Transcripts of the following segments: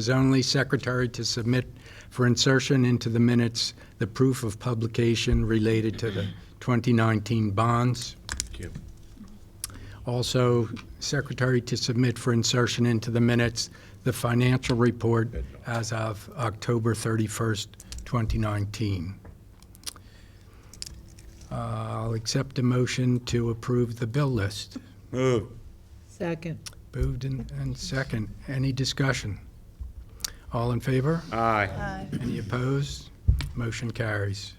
is only secretary to submit for insertion into the minutes the proof of publication related to the 2019 bonds. Thank you. Also, secretary to submit for insertion into the minutes the financial report as of October 31st, 2019. Uh, I'll accept a motion to approve the bill list. Move. Second. Moved and and second. Any discussion? All in favor? Aye. Any opposed? Motion carries.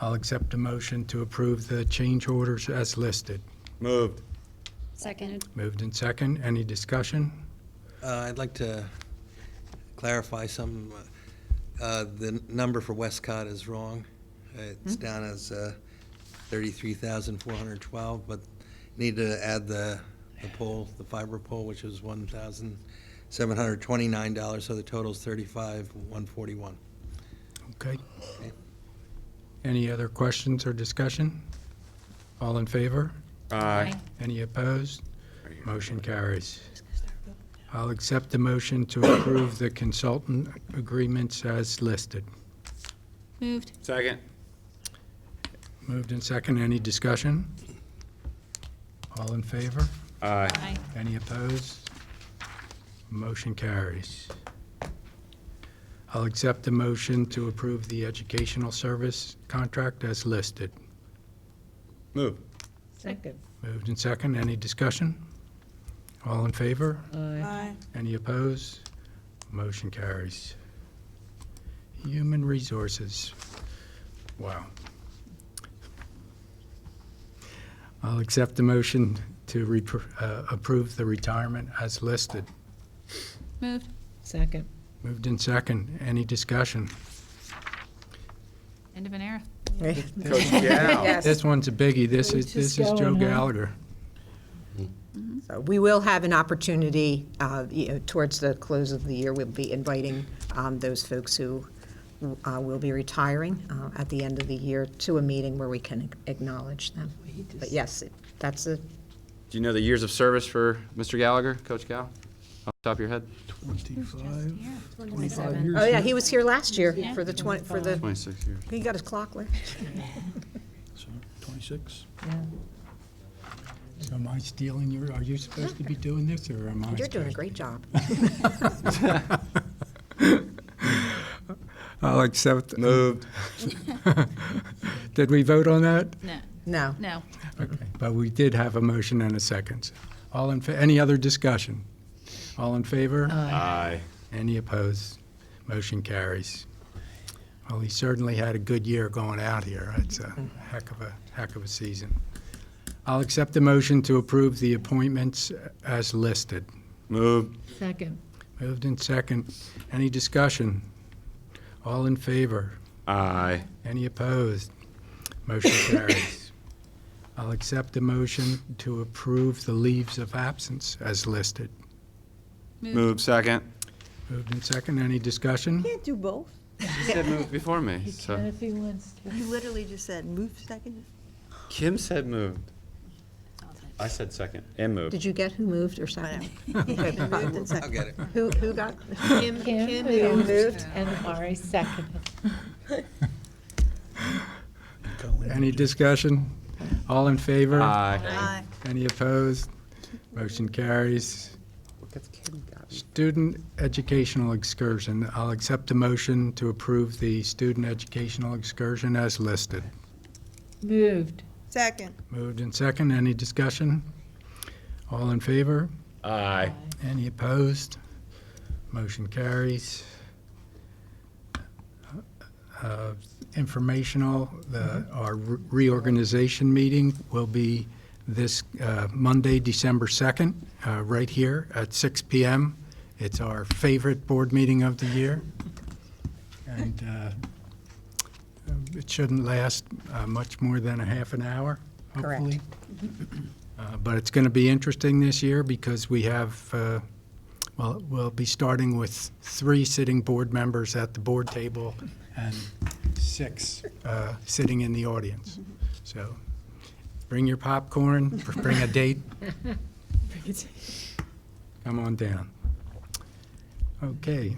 I'll accept a motion to approve the change orders as listed. Moved. Seconded. Moved in second. Any discussion? Uh, I'd like to clarify some, uh, the n- number for Westcott is wrong. It's down as uh, 33,412, but need to add the the pole, the fiber pole, which is $1,729, so the total's 35,141. Okay. Any other questions or discussion? All in favor? Aye. Any opposed? Motion carries. I'll accept the motion to approve the consultant agreements as listed. Moved. Second. Moved in second. Any discussion? All in favor? Aye. Aye. Any opposed? Motion carries. I'll accept the motion to approve the educational service contract as listed. Move. Second. Moved and second. Any discussion? All in favor? Aye. Any opposed? Motion carries. Human Resources. Wow. I'll accept the motion to repro- uh, approve the retirement as listed. Moved. Second. Moved in second. Any discussion? End of an era. Coach Gal. Oh, Yes, This one's a biggie. This We're is, this just is Joe going, huh? Gallagher. so we will have an opportunity, uh, you know, towards the close of the year, we'll be inviting um, those folks who uh, will be retiring uh, at the end of the year to a meeting where we can acknowledge them. But yes, it- that's a, Do you know the years of service for Mr. Gallagher, Coach Gal? Off the top of your head? Twenty-five. oh yeah, he was here last year for the 20, for the, 26 years. he got his clock left. Twenty-six? Am I stealing your, are you supposed to be doing this or am I? You're doing a supposed- great job. I'll accept. Moved. Did we vote on that? No, No, no. Okay, but we did have a motion and a second. All in, fa- any other discussion? All in favor? Aye. Any opposed? Motion carries. Well, he certainly had a good year going out here. It's a heck of a, heck of a season. I'll accept the motion to approve the appointments as listed. Moved. Second. Moved in second. Any discussion? All in favor? Aye. Any opposed? Motion carries. I'll accept the motion to approve the leaves of absence as listed. Move second. Moved in second. Any discussion? Can't do both. He said move before me, so. if he wants to. You literally just said move second. Kim said moved. I said second and moved. did you get who moved or second? Okay, Moved and I'll second. get it. Who, who got? Kim, Kim Kim moved and Ari seconded. Any discussion? All in favor? Aye. Aye. Any opposed? Motion carries. Student educational excursion. I'll accept the motion to approve the student educational excursion as listed. Moved. Second. Moved in second. Any discussion? All in favor? Aye. Any opposed? Motion carries. Uh, Informational, the- our reorganization meeting will be this uh, Monday, December 2nd, uh, right here at 6 PM. It's our favorite board meeting of the year. And uh, um, it shouldn't last uh, much more than a half an hour, Correct. hopefully. Uh, But it's going to be interesting this year because we have, uh, well, we'll be starting with three sitting board members at the board table and six uh, sitting in the audience. So bring your popcorn, bring a date. Come on down. Okay,